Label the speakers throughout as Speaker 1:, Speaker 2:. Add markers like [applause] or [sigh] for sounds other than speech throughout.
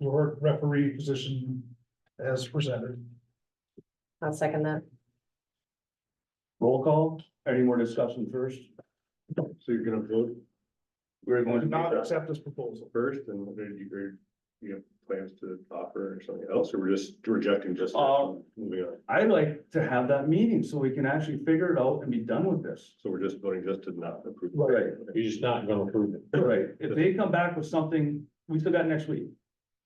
Speaker 1: or referee position as presented.
Speaker 2: I'll second that.
Speaker 3: Roll call, any more discussion first? So you're gonna vote? We're
Speaker 1: Do
Speaker 3: going to
Speaker 1: Not
Speaker 3: vote
Speaker 1: accept this proposal.
Speaker 3: first and whether you, or you have plans to offer or something else, or we're just rejecting just.
Speaker 4: Uh,
Speaker 3: Moving on,
Speaker 4: I'd like to have that meeting so we can actually figure it out and be done with this.
Speaker 3: so we're just voting just to not approve.
Speaker 4: Right.
Speaker 3: You're just not gonna approve it.
Speaker 4: Right, if they come back with something, we still got next week.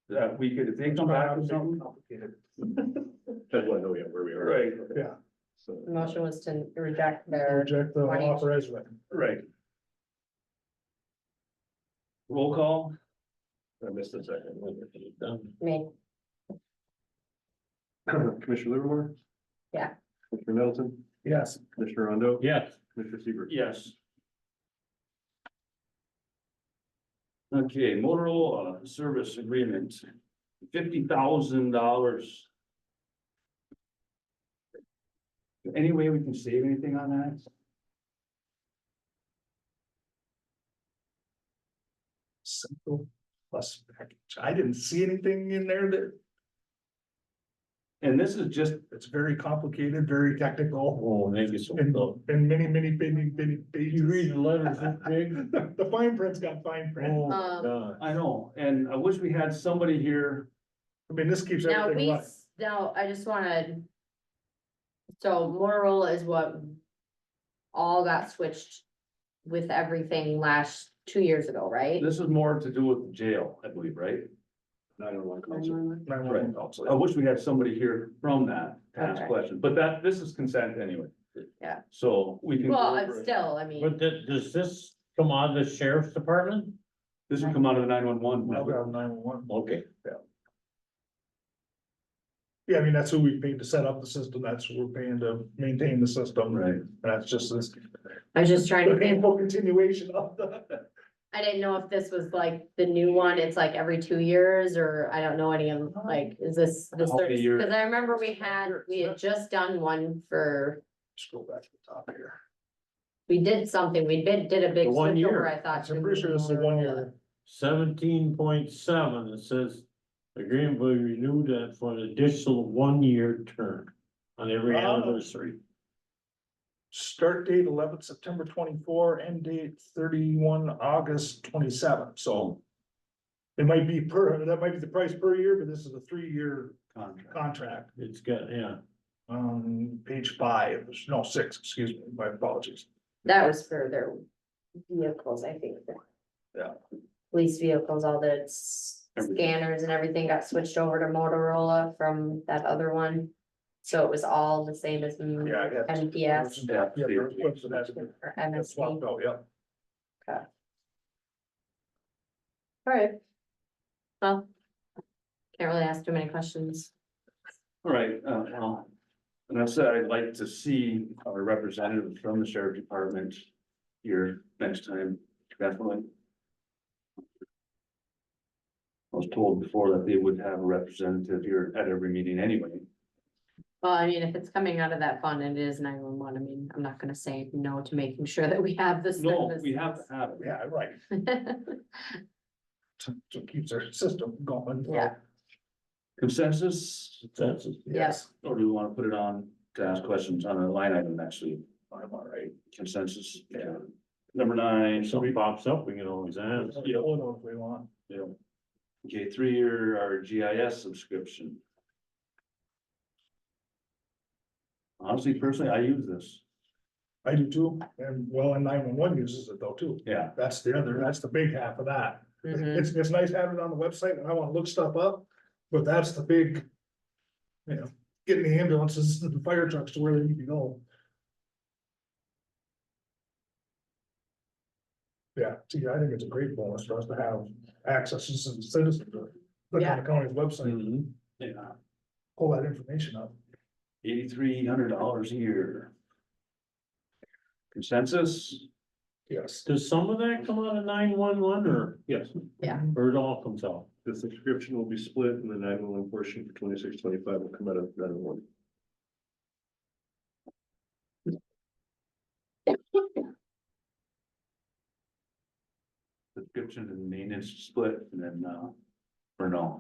Speaker 4: That we could, if they come back with something,
Speaker 1: Complicated.
Speaker 3: That's why I know we have where we are.
Speaker 4: Right.
Speaker 1: Yeah.
Speaker 3: So.
Speaker 2: The Motion was to reject their,
Speaker 1: Reject the
Speaker 2: Why don't you-
Speaker 1: offer as written.
Speaker 4: right. Roll call,
Speaker 3: I missed the second.
Speaker 2: me,
Speaker 3: [clears throat] Commissioner Livermore?
Speaker 2: Yeah.
Speaker 3: Commissioner Middleton,
Speaker 1: Yes,
Speaker 3: Commissioner Rondo?
Speaker 4: yes.
Speaker 3: Commissioner Seaver?
Speaker 4: Yes. Okay, Motorola uh, service agreement, fifty thousand dollars. Any way we can save anything on that?
Speaker 1: simple plus package. I didn't see anything in there that,
Speaker 4: And this is just,
Speaker 1: it's very complicated, very technical.
Speaker 3: Oh, thank you so
Speaker 1: And, and many, many, many, many pages.
Speaker 3: the letters
Speaker 1: [laughs]
Speaker 3: that big?
Speaker 1: The fine print's got fine print.
Speaker 2: um,
Speaker 4: Oh,
Speaker 3: Uh,
Speaker 4: I know, and I wish we had somebody here,
Speaker 1: I mean, this keeps
Speaker 2: now
Speaker 1: everything
Speaker 2: we,
Speaker 1: right.
Speaker 2: s- now, I just wanna. So Motorola is what. All got switched with everything last, two years ago, right?
Speaker 4: this is more to do with the jail, I believe, right?
Speaker 3: Nine one one council.
Speaker 2: Um,
Speaker 4: Right, I wish we had somebody here from that to ask
Speaker 2: Okay.
Speaker 4: questions, but that, this is consent anyway.
Speaker 2: Yeah.
Speaker 4: So we can. go
Speaker 2: Well,
Speaker 4: over
Speaker 2: I'm
Speaker 4: it.
Speaker 2: still, I mean,
Speaker 5: does, does this come out of the sheriff's department?
Speaker 4: This would come out of the nine one one.
Speaker 1: Nine-one-one.
Speaker 5: Okay.
Speaker 1: Yeah, I mean, that's who we paid to set up the system. That's who we're paying to maintain the system.
Speaker 4: Right.
Speaker 1: That's just this
Speaker 2: I was just trying to think,
Speaker 1: painful continuation of the.
Speaker 2: I didn't know if this was like the new one, it's like every two years, or I don't know any of, like, is this the
Speaker 4: How many
Speaker 2: third?
Speaker 4: years?
Speaker 2: Cause I remember we had, we had just done one for,
Speaker 1: Scroll back to the top here.
Speaker 2: we did something, we did, did a big
Speaker 5: The one
Speaker 2: switch over,
Speaker 5: year.
Speaker 2: I thought.
Speaker 1: I'm pretty sure this is a
Speaker 2: uh,
Speaker 1: one-year.
Speaker 5: Seventeen point seven, it says agreement will be renewed at- for an additional one-year term on every
Speaker 1: Oh.
Speaker 5: anniversary.
Speaker 1: Start date eleventh September twenty-four, end date thirty-one August twenty-seven, so. It might be per, that might be the price per year, but this is a three-year
Speaker 4: Contract.
Speaker 1: contract,
Speaker 5: It's got, yeah,
Speaker 1: um, page five, no, six, excuse me, my apologies.
Speaker 2: That was for their vehicles, I think.
Speaker 1: Yeah.
Speaker 2: Police vehicles, all the s- scanners and everything got switched over to Motorola from that other one. So it was all the same as M-
Speaker 1: Yeah, I got-
Speaker 2: MPS
Speaker 1: Yeah, they're equipped for that.
Speaker 2: or
Speaker 1: That's
Speaker 2: MSP.
Speaker 1: swapped
Speaker 2: All
Speaker 1: out, yep.
Speaker 2: right. Well, can't really ask too many questions.
Speaker 4: All right, uh, well, and I said I'd like to see our representative from the sheriff department here next time, definitely. I was told before that they would have a representative here at every meeting anyway.
Speaker 2: Well, I mean, if it's coming out of that fund and it is nine one one, I mean, I'm not gonna say no to making sure that we have this.
Speaker 4: No, we have to have it.
Speaker 1: Yeah, right,
Speaker 2: [laughs]
Speaker 1: to, to keep their system going.
Speaker 2: Yeah.
Speaker 4: Consensus,
Speaker 5: that's,
Speaker 2: Yes.
Speaker 4: or do we want to put it on to ask questions on a line item next week?
Speaker 1: I'm all right.
Speaker 4: Consensus, yeah. Number nine,
Speaker 5: if
Speaker 4: so
Speaker 5: something pops up, we can always ask.
Speaker 1: Yeah, hold on if we want.
Speaker 4: Yeah. Okay, three-year our GIS subscription. Honestly, personally, I use this.
Speaker 1: I do too, and well, and nine-one-one uses it though too.
Speaker 4: Yeah.
Speaker 1: That's the other, that's the big half of that.
Speaker 2: Mhm.
Speaker 1: It's, it's nice having it on the website and I wanna look stuff up, but that's the big. You know, getting the ambulances and the fire trucks to where they need to go. Yeah, see, I think it's a great bonus for us to have access as a citizen to look on the county's
Speaker 4: Mm.
Speaker 1: website,
Speaker 4: Yeah,
Speaker 1: pull that information up.
Speaker 4: eighty-three hundred dollars a year. Consensus?
Speaker 1: Yes.
Speaker 5: Does some of that come out of nine-one-one or? Yes.
Speaker 2: Yeah.
Speaker 5: Or it all comes out?
Speaker 3: The subscription will be split and the nine one one portion for twenty six, twenty five will come out of nine one.
Speaker 4: Subscription and maintenance split, and then, uh, for now.